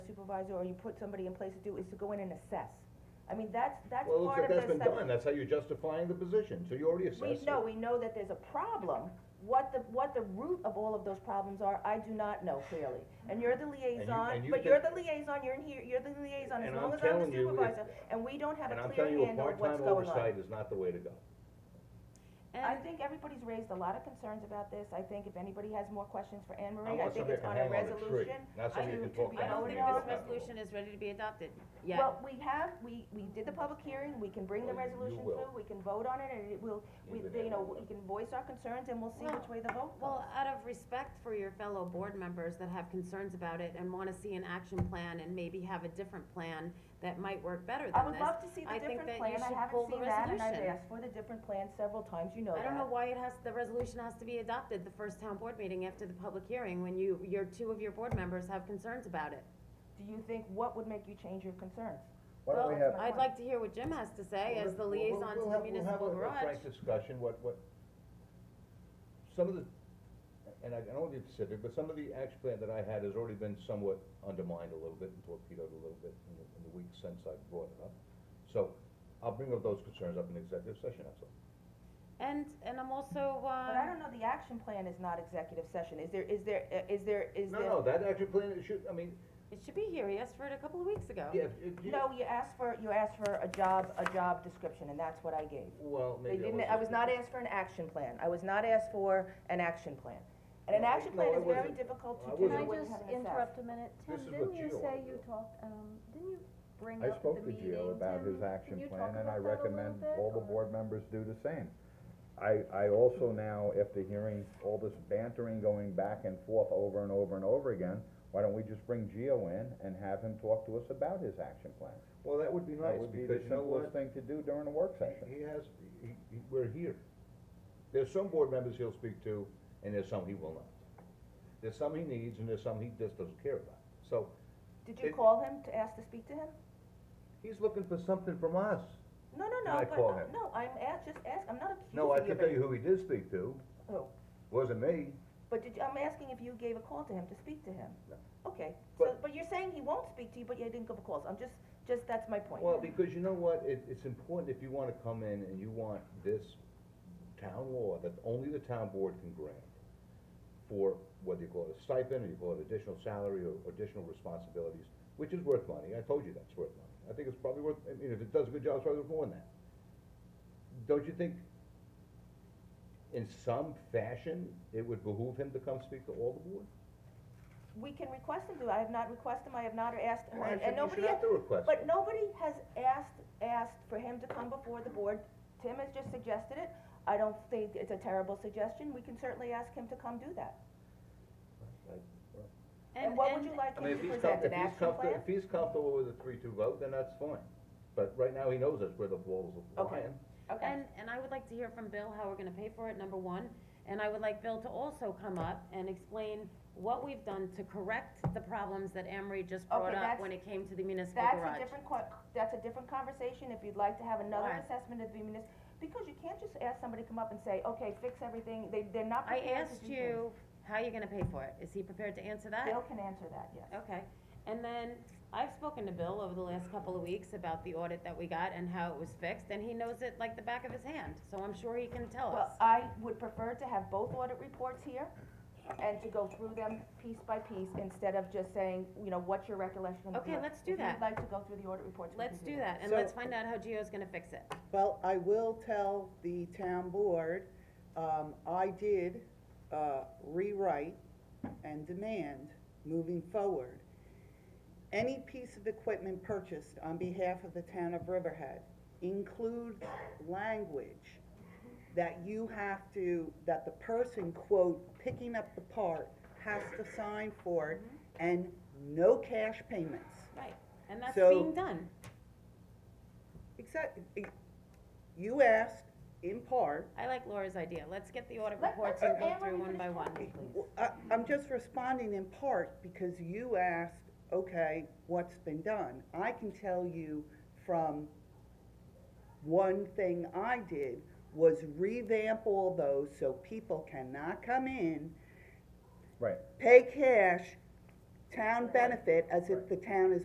supervisor or you put somebody in place to do, is to go in and assess. I mean, that's, that's Well, part looks of the. like that's been sub- done, that's how you're justifying the position, so you already We, assessed it. no, we know that there's a problem. What the, what the root of all of those problems are, I do not know clearly. And you're the liaison, and you but you're think- the liaison, you're in here, you're the liaison, as And long I'm as I'm telling the you, if- supervisor, and we don't have And a I'm clear telling you, a handle of what's part-time going on. oversight is not the way to go. I And, think everybody's raised a lot of concerns about this. I think if anybody has more questions for Anne I Marie, I want think somebody it's to on a hang on a tree, resolution. not somebody who can to talk be down I don't and make think it this happen. resolution is ready to be adopted yet. Well, we have, we, we did the public hearing, we can bring the Well, you resolution will. through, we can vote on it, and it will, we, Even you if- know, we can voice our concerns, and we'll see Well, which way the vote goes. Well, out of respect for your fellow board members that have concerns about it and wanna see an action plan and maybe have a different plan that might work better than this. I would love to see the I think different that plan, you I should pull haven't the seen that, and I've resolution. asked for the different plan several times, you know I that. don't know why it has, the resolution has to be adopted the first town board meeting after the public hearing, when you, your two of your board members have concerns about it. Do you think, what would make you change your concerns? Why don't we Well, have, my I'd point. like to hear what Jim has to say as the Well, we'll- liaison to we'll the have- municipal We'll have a- a garage. frank discussion, what, what, some of the, and I I don't want to be specific, but some of the action plan that I had has already been somewhat undermined a little bit and torpedoed a little bit in the, in the weeks since I brought it up. So, I'll bring up those concerns up in executive session, that's all. And, and I'm also, But I um, don't know, the action plan is not executive session, is there, is there, uh, is there, is No, there? no, that action plan, it should, I mean, it should be here, he asked for it a couple of weeks ago. yeah, it, you- Um, No, you asked for, you asked for a job, a job description, and that's what I gave. well, They maybe I didn't, wasn't I was not specific. asked for an action plan, I was not asked for an action plan. And an No, action plan no, I is very wasn't. difficult I to do when Can I wasn't. you just have an assessment. interrupt a minute? Tim, This is what didn't you Gio say wanted you to do. talked, um, didn't you bring I up the spoke to meeting? Gio about Tim? his action Can you talk plan, about and I that a little recommend bit, all the or- board members do the same. I, I also now, after hearing all this bantering going back and forth over and over and over again, why don't we just bring Gio in and have him talk to us about his action plan? Well, that would be That nice, would be the because you know what? simplest thing to do during a work session. He has, he, he, we're here. There's some board members he'll speak to, and there's some he will not. There's some he needs, and there's some he just doesn't care about. So, Did you It- call him to ask to speak to him? he's looking for something from us. No, no, I no, but, call him? no, I'm ask, just ask, I'm not accusing you No, I of can tell it. you who he did speak to, Who? wasn't me. But did you, I'm asking if you gave a call to him to speak to him? No. Okay, so, But- but you're saying he won't speak to you, but you didn't give a call, so I'm just, just, that's my point. Well, because you know what, it, it's important if you wanna come in and you want this town law that only the town board can grant for whether you call it a stipend, or you call it additional salary, or additional responsibilities, which is worth money, I told you that's worth money. I think it's probably worth, I mean, if it does a good job, it's probably worth more than that. Don't you think in some fashion, it would behoove him to come speak to all the board? We can request him to, I have not requested him, I have not asked him, Why and should- and nobody You should has, have to request But it. nobody has asked, asked for him to come before the board. Tim has just suggested it. I don't think it's a terrible suggestion. We can certainly ask him to come do that. And what would you like I him mean, if to he's present, comfortable, an if he's action comfortable, plan? if he's comfortable with a three-two vote, then that's fine. But right now, he knows that's where the balls are Okay. flying. Okay. And, and I would like to hear from Bill how we're gonna pay for it, number one. And I would like Bill to also come up and explain what we've done to correct the problems that Emery just brought Okay, up that's- when it came to the municipal That's a garage. different que- that's a different conversation. If you'd like to have another Why? assessment of the munis, because you can't just ask somebody to come up and say, okay, fix everything. They, they're not I prepared to asked do things. you, how you gonna pay for it? Is he prepared to answer that? Bill can answer that, yes. Okay, and then I've spoken to Bill over the last couple of weeks about the audit that we got and how it was fixed, and he knows it like the back of his hand, so I'm sure he can tell Well, us. I would prefer to have both audit reports here and to go through them piece by piece instead of just saying, you know, what's your recollection of the Okay, audit. let's do If that. you'd like to go through the audit reports, we can Let's do that, and So- let's find out how Gio's gonna fix it. Well, I will tell the town board, um, I did, uh, rewrite and demand moving forward. Any piece of equipment purchased on behalf of the town of Riverhead includes language that you have to, that the person, quote, picking up the part has to sign for it and no cash payments. Right, and that's So- being done. Except, you asked in part, I like Laura's idea, let's get the audit Let- reports let- and go Anne, through let me one by finish one. talking, please. Well, I, I'm just responding in part because you asked, okay, what's been done? I can tell you from, one thing I did was revamp all those so people cannot come in, Right. pay cash, town benefit as if the town is